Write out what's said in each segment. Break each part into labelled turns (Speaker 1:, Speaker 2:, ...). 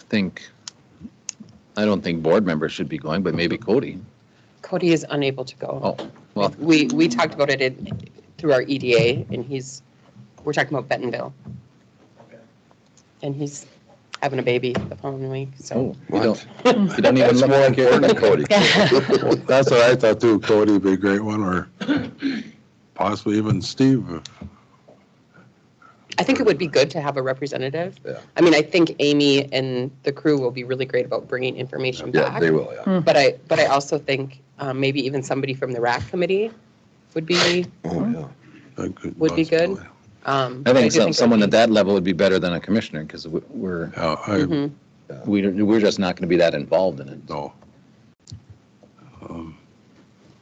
Speaker 1: think, I don't think board members should be going, but maybe Cody.
Speaker 2: Cody is unable to go.
Speaker 1: Oh, well,
Speaker 2: We, we talked about it in, through our EDA and he's, we're talking about Bentonville. And he's having a baby the following week, so.
Speaker 1: oh, you don't, you don't even
Speaker 3: That's more
Speaker 1: look
Speaker 3: important
Speaker 1: at
Speaker 3: than Cody. Well, That's what I thought too. Cody would be a great one, or possibly even Steve.
Speaker 2: I think it would be good to have a representative.
Speaker 3: Yeah.
Speaker 2: I mean, I think Amy and the crew will be really great about bringing information
Speaker 3: Yeah,
Speaker 2: back.
Speaker 3: they will, yeah.
Speaker 2: But I, but I also think um, maybe even somebody from the RAC committee would be,
Speaker 3: Oh, yeah. That could
Speaker 2: Would be good.
Speaker 3: possibly.
Speaker 2: um.
Speaker 1: I
Speaker 2: do
Speaker 1: think some-
Speaker 2: it
Speaker 1: someone
Speaker 2: would
Speaker 1: at that level would be better than a commissioner because we're,
Speaker 3: Yeah,
Speaker 2: be-
Speaker 3: I,
Speaker 2: Mhm.
Speaker 1: we don't- we're just not going to be that involved in it.
Speaker 3: no. Um,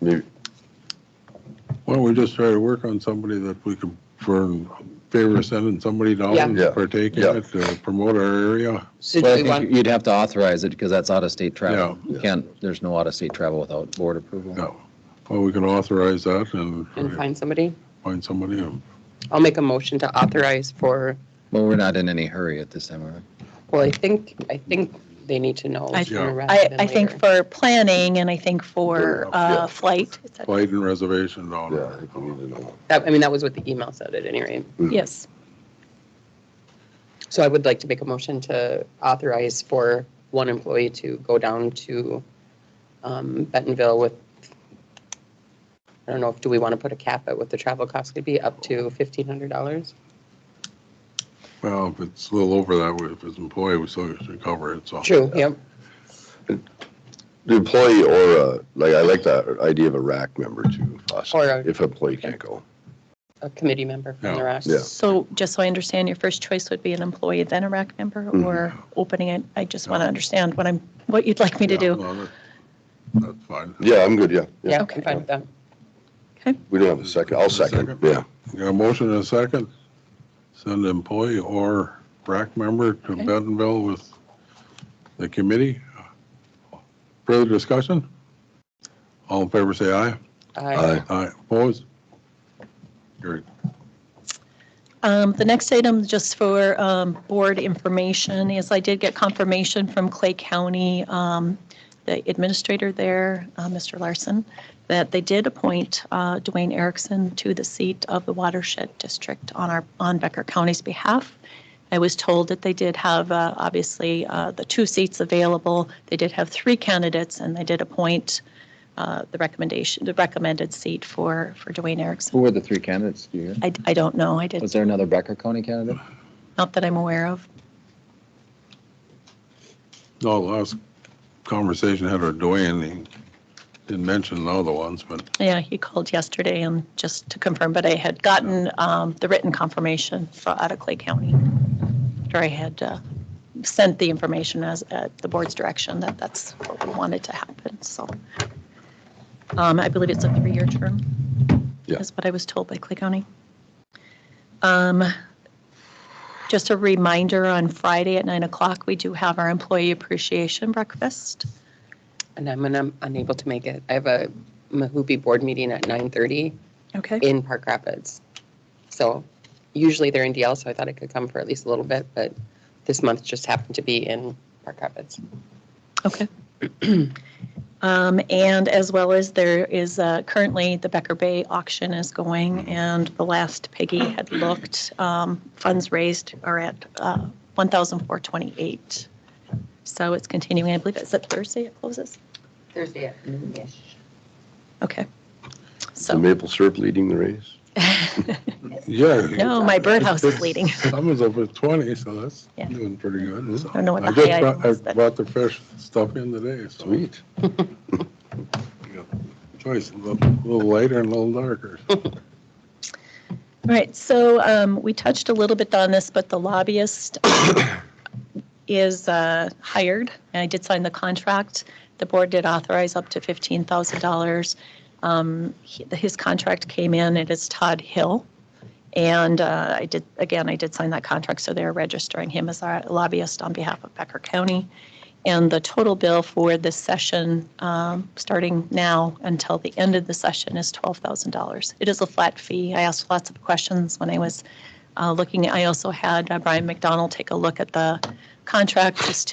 Speaker 4: Maybe-
Speaker 3: Why don't we just try to work on somebody that we could, for in favor of sending somebody down,
Speaker 4: Yeah. Yeah.
Speaker 3: partake in
Speaker 4: Yeah.
Speaker 3: it, to promote our area?
Speaker 2: So
Speaker 1: But
Speaker 2: do
Speaker 1: I
Speaker 2: we
Speaker 1: think
Speaker 2: want,
Speaker 1: you'd have to authorize it because that's out-of-state travel.
Speaker 3: Yeah.
Speaker 1: You can't, there's no out-of-state travel without board approval.
Speaker 3: No. Well, we can authorize that and
Speaker 2: and find somebody?
Speaker 3: find somebody. who-
Speaker 2: I'll make a motion to authorize for,
Speaker 1: Well, we're not in any hurry at this time, are we?
Speaker 2: well, I think, I think they need to know
Speaker 5: I-
Speaker 2: sooner rather
Speaker 5: I,
Speaker 2: than
Speaker 5: I think
Speaker 2: later.
Speaker 5: for planning and I think for
Speaker 3: Sure,
Speaker 4: yeah.
Speaker 5: uh, flight. et cetera.
Speaker 3: Flight and reservation down.
Speaker 4: Yeah, I think we need to know.
Speaker 2: That, I mean, that was what the email said at any rate.
Speaker 5: Yes,
Speaker 2: So I would like to make a motion to authorize for one employee to go down to um, Bentonville with, I don't know, if do we want to put a cap at what the travel cost could be, up to $1,500?
Speaker 3: Well, if it's a little over that, way, if it's employee, we still should cover it, so.
Speaker 2: True, yep.
Speaker 4: The employee or, uh, like, I like that idea of a rack member too, possibly,
Speaker 2: Or a-
Speaker 4: if employee can't go.
Speaker 2: A committee member from the
Speaker 3: Yeah.
Speaker 2: rest.
Speaker 4: Yeah.
Speaker 5: so just so I understand, your first choice would be an employee, then a RAC member,
Speaker 4: Mhm.
Speaker 5: or opening it? I just want to understand what I'm, what you'd like me to
Speaker 3: Yeah,
Speaker 5: do.
Speaker 3: no, that- That's fine.
Speaker 4: Yeah, I'm good, yeah.
Speaker 2: Yeah,
Speaker 5: Okay.
Speaker 2: I'm fine with that.
Speaker 4: We don't have a second, I'll second,
Speaker 3: Second.
Speaker 4: yeah.
Speaker 3: You got a motion and a second? Send employee or RAC member to
Speaker 5: Okay.
Speaker 3: Bentonville with the committee. Further discussion? All in favor, say aye.
Speaker 2: I-
Speaker 3: Aye, opposed? Carried.
Speaker 5: Um, The next item, just for um, board information, is I did get confirmation from Clay County, um, the administrator there, uh, Mr. Larson, that they did appoint uh, Dwayne Erickson to the seat of the watershed district on our, on Becker County's behalf. I was told that they did have, uh, obviously, uh, the two seats available. They did have three candidates, and they did appoint uh, the recommendation, the recommended seat for, for Dwayne Erickson.
Speaker 1: Who were the three candidates? Do you hear?
Speaker 5: I, I don't know. I did
Speaker 1: Was there another Becker County candidate?
Speaker 5: not that I'm aware of.
Speaker 3: No, last conversation I had with Dwayne, he didn't mention the other ones, but
Speaker 5: Yeah, he called yesterday and just to confirm, but I had gotten um, the written confirmation for out of Clay County. After I had uh, sent the information as, at the board's direction that that's what we wanted to happen, so. Um, I believe it's a three-year term.
Speaker 4: Yeah.
Speaker 5: Is what I was told by Clay County. Um, Just a reminder, on Friday at 9 o'clock, we do have our employee appreciation breakfast.
Speaker 2: And I'm gonna- unable to make it. I have a Mahoobie board meeting at 9:30
Speaker 5: Okay.
Speaker 2: in Park Rapids. So usually they're in DL, so I thought I could come for at least a little bit, but this month just happened to be in Park Rapids.
Speaker 5: Okay. Um, And as well as there is uh, currently, the Becker Bay auction is going, and the last Peggy had looked, um, funds raised are at uh, 1,428. So it's continuing, I believe it's at Thursday it closes?
Speaker 2: Thursday at
Speaker 5: Okay.
Speaker 4: The
Speaker 5: So,
Speaker 4: maple syrup leading the race?
Speaker 3: yeah.
Speaker 5: no, my birdhouse is leading.
Speaker 3: Summer's over 20, so that's
Speaker 5: Yeah.
Speaker 3: doing pretty good. I
Speaker 5: don't know what the
Speaker 3: just
Speaker 5: high
Speaker 3: brought-
Speaker 5: item was,
Speaker 3: I
Speaker 5: but-
Speaker 3: brought the fresh stuff in today, so.
Speaker 4: Sweet.
Speaker 3: Choice, a little a little lighter and a little darker.
Speaker 5: All Right, so um, we touched a little bit on this, but the lobbyist um, is uh, hired, and I did sign the contract. The board did authorize up to $15,000. Um, he- His contract came in, it is Todd Hill. And uh, I did, again, I did sign that contract, so they're registering him as our lobbyist on behalf of Becker County. And the total bill for this session, um, starting now until the end of the session, is $12,000. It is a flat fee. I asked lots of questions when I was uh, looking. I also had uh, Brian McDonald take a look at the contract just